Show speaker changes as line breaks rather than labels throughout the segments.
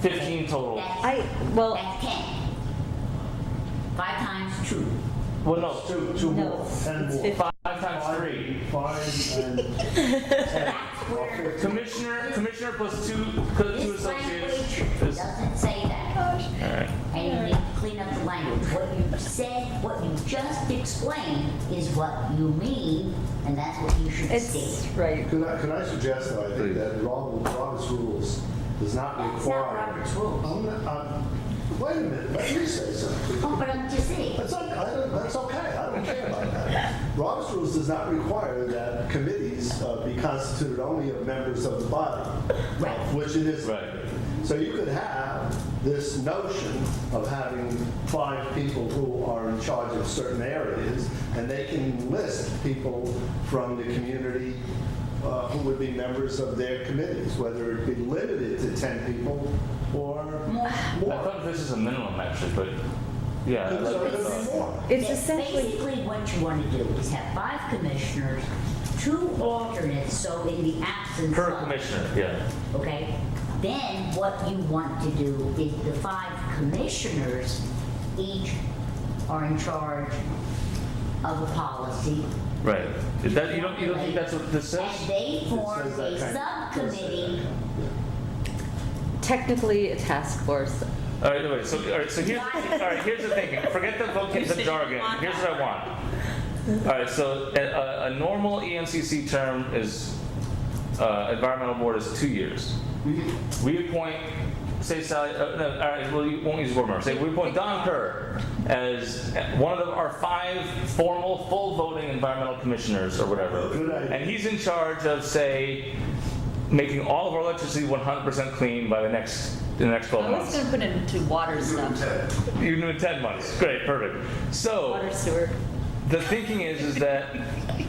15 total.
That's-
I, well,
That's ten. Five times two.
Well, no,
Two, two
No,
more,
it's-
ten
it's
more.
fif-
five times three.
Five and ten.
That's where.
Commissioner, commissioner plus two, two
This
associates.
language
This-
doesn't say that.
Alright.
And you need to clean up the language. What you said, what you just explained is what you mean, and that's what you should
it's,
state.
right.
Could I, could I suggest though, I think that Rob- Robert's rules does not require.
That's not Robert's rules.
I'm not- I'm- Wait a minute, let me say something.
Oh, but I'm just saying,
That's, not- I don't- that's okay, I don't care about that. Robert's rules does not require that committees uh, be constituted only of members of the body,
Right.
which it is.
Right.
So you could have this notion of having five people who are in charge of certain areas, and they can list people from the community uh, who would be members of their committees, whether it be limited to 10 people or more.
I thought this is a minimum actually, but yeah.
Could-
that's
so
what I
it could be
thought.
more.
It's
Ba-
essentially,
Basically, what you want to do is have five commissioners, two alternates, so in the absence
Per
of-
commissioner, yeah.
Okay, then what you want to do is the five commissioners each are in charge of a policy.
Right. Is that, you don't, you don't think that's what this
And
says?
they
It
form
says that
a
kind of- it says that
subcommittee.
kind of- yeah.
technically a task force.
All right, wait, so, all right, so here's, all right, here's the thing. Forget the vocab, the jargon. Here's what I want. All right, so a, a, a normal E ENCC term is, uh, environmental board is two years.
Mm-hmm.
We appoint, say Sally, uh, no, all right, well, you won't use board member. Say we appoint Don Kerr as one of the- our five formal, full voting environmental commissioners or whatever.
Oh, Good idea.
And he's in charge of, say, making all of our electricity 100% clean by the next, the next 12
I
months.
was gonna put it into water stuff,
You're doing 10 months. Great, perfect. So
water sewer.
the thinking is, is that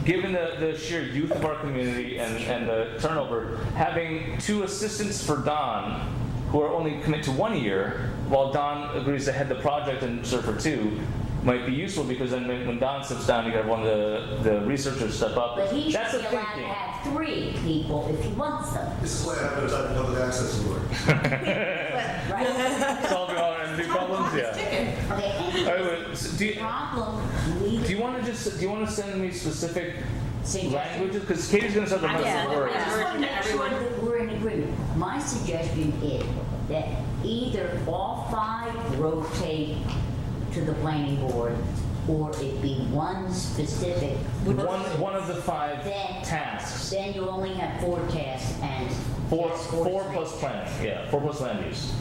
given the, the sheer youth of our community and, and the turnover, having two assistants for Don who are only commit to one year, while Don agrees to head the project and serve for two, might be useful because then when when Don steps down, you got one of the, the researchers step up.
But he should be
That's the
allowed to
thinking.
have three people if he wants them,
This is why I haven't done public access work.
right?
Solve your R&D problems, yeah.
Okay,
All
and
right, wait, so do you,
problem, we
do you want to just, do you want to send me specific
Suggestions?
languages? Because Katie's going to start the
Yeah,
rest of the
yeah.
words.
I just want to make sure that we're in agreement. My suggestion is that either all five rotate to the planning board, or it be one specific.
One, one of the five
Then-
tasks.
Then you only have four tasks and.
Four,
task force
four
three.
plus planning, yeah, four plus land use.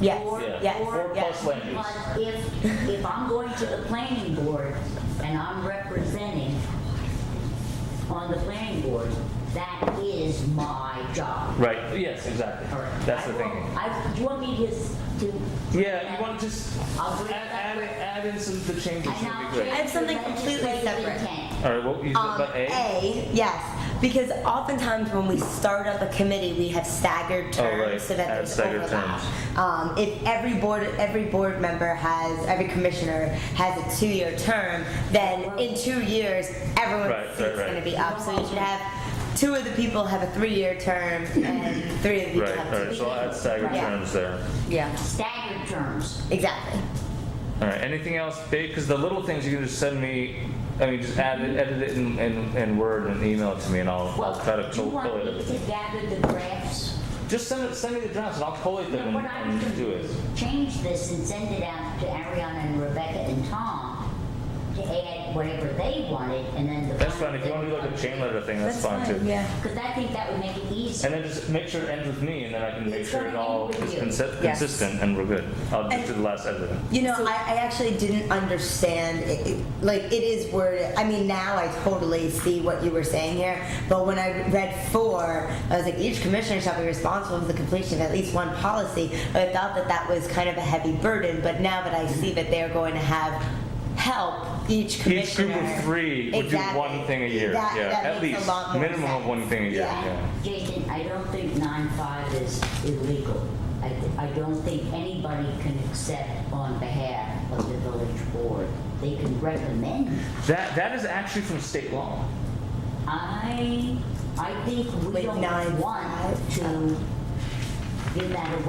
Yes,
Four-
Yeah. Four plus land use.
But if, if I'm going to the planning board and I'm representing on the planning board, that is my job.
Right, yes, exactly.
All right.
That's the
I will-
thing.
I, do you want me to, s- to?
Yeah, you want to just
I'll
add,
bring it
add,
back.
add in some of the changes
And
would be
I'll
great.
I have something
change the
completely
legislative
separate.
intent.
All right, what, you
Um,
about A?
yes, because oftentimes when we start up a committee, we have staggered terms
Oh, right,
so that
add
there's
staggered
overlap. Um, if every board, every board member has, every commissioner has a two-year term, then in two years,
Right,
everyone's
right,
seat's
right.
gonna be up. So you should have, two of the people have a three-year term, and three of you
Right,
have
all
two.
right, so I'll add staggered
Yeah.
terms there.
yeah.
Staggered terms.
Exactly.
All right, anything else big? Because the little things you can just send me, I mean, just add it, edit it in, in, in Word and email it to me and I'll,
Well,
I'll try to
do you want
collate
me
it.
to gather the graphs?
Just send it, send me the drafts and I'll collate them
No, What
and,
I was
and do
gonna
it.
is change this and send it out to Ariana and Rebecca and Tom to add whatever they wanted and then the.
That's fine, if you want to do like a chain letter thing, that's fine too.
Yeah.
Because I think that would make it easier.
And then just make sure it ends with me, and then I can make
It's
sure it
gonna
all
end with
is
you.
consi-
Yes.
consistent, and we're good. I'll just
And-
do the last edit.
You know, I, I actually didn't understand. It, it, like, it is worded. I mean, now I totally see what you were saying here. But when I read four, I was like, each commissioner shall be responsible for the completion of at least one policy. I thought that that was kind of a heavy burden. But now that I see that they're going to have help each commissioner.
Each group of three would do
Exactly.
one thing a year,
That-
yeah,
that
at
makes a
least,
lot more
minimum of
sense.
one thing a year,
Yeah.
yeah.
Jason, I don't think nine five is illegal. I, I don't think anybody can accept on behalf of the village board. They can recommend.
That, that is actually from state law.
I, I think we
Like
don't
nine
want
five?
to give that away.